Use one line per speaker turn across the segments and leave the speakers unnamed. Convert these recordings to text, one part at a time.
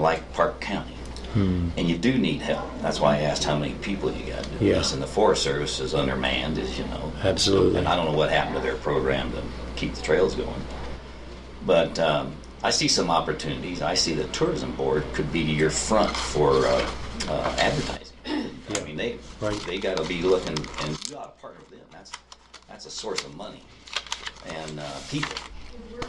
like Park County.
Hmm.
And you do need help. That's why I asked how many people you got doing
Yeah.
this. And the Forest Service is undermanned, as you know.
Absolutely.
And I don't know what happened to their program to keep the trails going. But um, I see some opportunities. I see the tourism board could be your front for uh, uh, advertising. I mean, they
Right.
they got to be looking, and you got to partner with them. That's that's a source of money and uh, people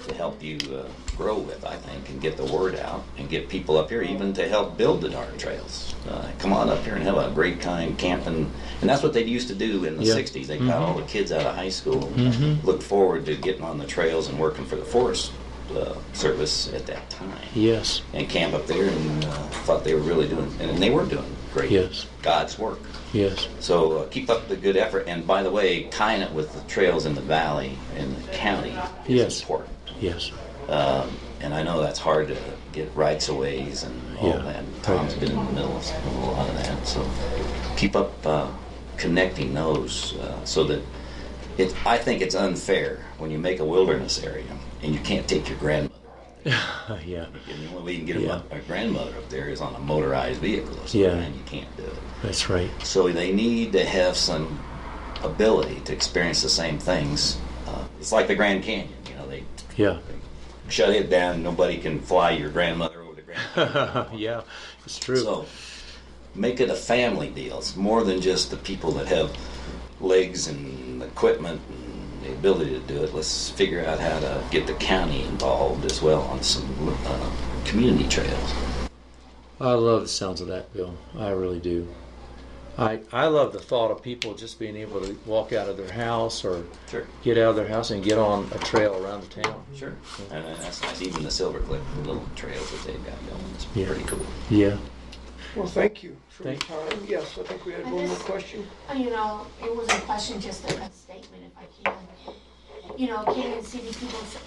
to help you uh, grow with, I think, and get the word out and get people up here, even to help build the darn trails. Uh, come on up here and have a great time camping, and that's what they used to do in the
Yeah. Mm-hmm.
'60s. They got all the kids out of high school, and looked forward to getting on the trails and working for the Forest uh, Service at that time
Yes.
and camp up there and uh, thought they were really doing, and they were doing great.
Yes.
God's work.
Yes.
So uh, keep up the good effort. And by the way, tying it with the trails in the valley and the county is
Yes.
important.
Yes.
Um, and I know that's hard to get rights of ways and all
Yeah.
that. Tom's been in the middle of a lot of that. So keep up uh, connecting those uh, so that it, I think it's unfair when you make a wilderness area and you can't take your grandmother.
Uh, yeah.
And the only way you can get a
Yeah.
mo- a grandmother up there is on a motorized vehicle or something,
Yeah.
and you can't do it.
That's right.
So they need to have some ability to experience the same things. Uh, it's like the Grand Canyon, you know, they
Yeah.
shut it down. Nobody can fly your grandmother over the Grand Canyon.
yeah. It's true.
so make it a family deal. It's more than just the people that have legs and equipment and the ability to do it. Let's figure out how to get the county involved as well on some uh, community trails.
I love the sounds of that, Bill. I really do. I I love the thought of people just being able to walk out of their house or
Sure.
get out of their house and get on a trail around the town.
Sure. And uh, that's nice. Even the Silver Cliff, the little trails that they've got going, it's
Yeah.
pretty cool.
Yeah.
Well, thank you for your
Thank-
time. Yes, I think we had
I
one more
just-
question.
Uh, You know, it was a question, just a a statement if I can. You know, Canyon City, people s-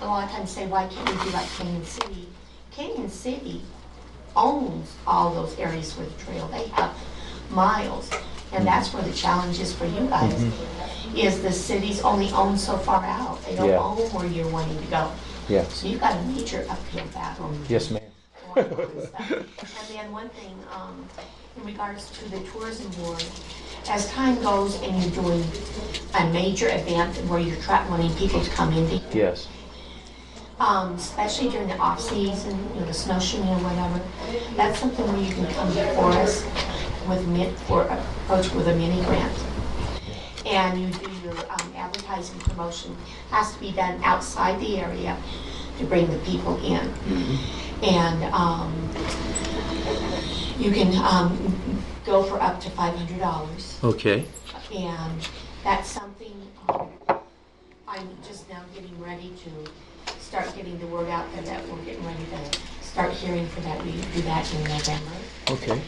a lot of times say, why can't we be like Canyon City? Canyon City owns all those areas with trail. They have miles. And that's where the challenge is for you guys, is the cities only own so far out. They don't
Yeah.
own where you're wanting to go.
Yes.
So you got a major uphill battle
Yes, ma'am.
going on and stuff. And then one thing, um, in regards to the tourism board, as time goes and you're doing a major event where you're trying, wanting people to come in, to-
Yes.
um, especially during the off-season, you know, the snowshoeing or whatever, that's something where you can come before us with min, or approach with a mini grant. And you do your um, advertising promotion, has to be done outside the area to bring the people in. And, um, you can, um, go for up to five hundred dollars.
Okay.
And that's something um, I'm just now getting ready to start getting the word out there that we're getting ready to start hearing for that. We do that in November.
Okay.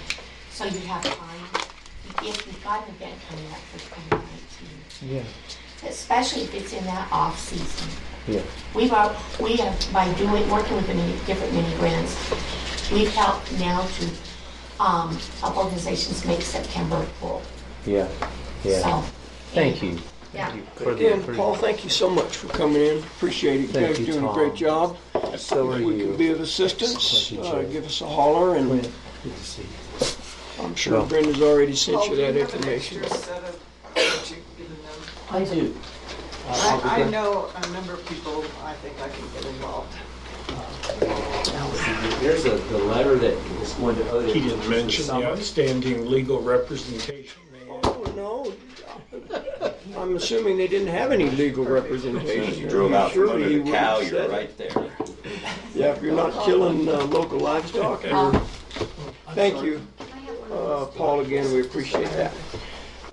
So you have time, if you've got an event coming up for 2019,
Yeah.
especially if it's in that off-season.
Yeah.
We've, al- we have, by doing, working with the many, different mini grants, we've helped now to um, help organizations make September full.
Yeah.
So,
Thank you.
Yeah.
Thank you for the-
Again,
for the-
Paul, thank you so much for coming in. Appreciate it. You
Thank
guys
you,
doing a
Tom.
great job.
So are
If we
you.
can be of assistance,
Thank you,
uh,
Jay.
give us a holler, and
Good to see you.
I'm sure
Well-
Brenda's already sent you that
Oh, you have an
information.
extra set of- that you've given them?
I do.
I, I know a number of people, I think I can get involved.
There's a, the letter that was going to Otis.
He didn't mention the outstanding legal representation they had.
Oh, no. I'm assuming they didn't have any legal
As soon as
representation.
you drove out from
Surely
under
you
the
would've
cow,
said
you're
it.
right there.
Yeah, if you're not killing uh, local livestock. you're-
Uh-huh.
Thank you, uh, Paul, again, we appreciate that.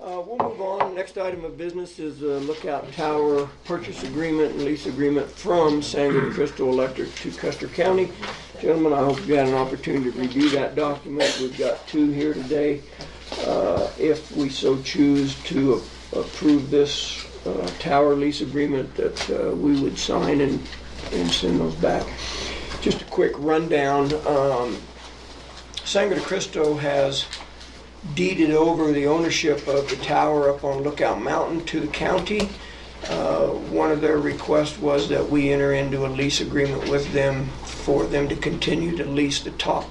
Uh, We'll move on. Next item of business is the Lookout Tower purchase agreement and lease agreement from Sangre de Cristo Electric to Custer County. Gentlemen, I hope you had an opportunity to review that document. We've got two here today. Uh, If we so choose to a- approve this uh, tower lease agreement, that uh, we would sign and and send those back. Just a quick rundown. um, Sangre de Cristo has deeded over the ownership of the tower up on Lookout Mountain to the county. Uh, One of their requests was that we enter into a lease agreement with them for them to continue to lease the top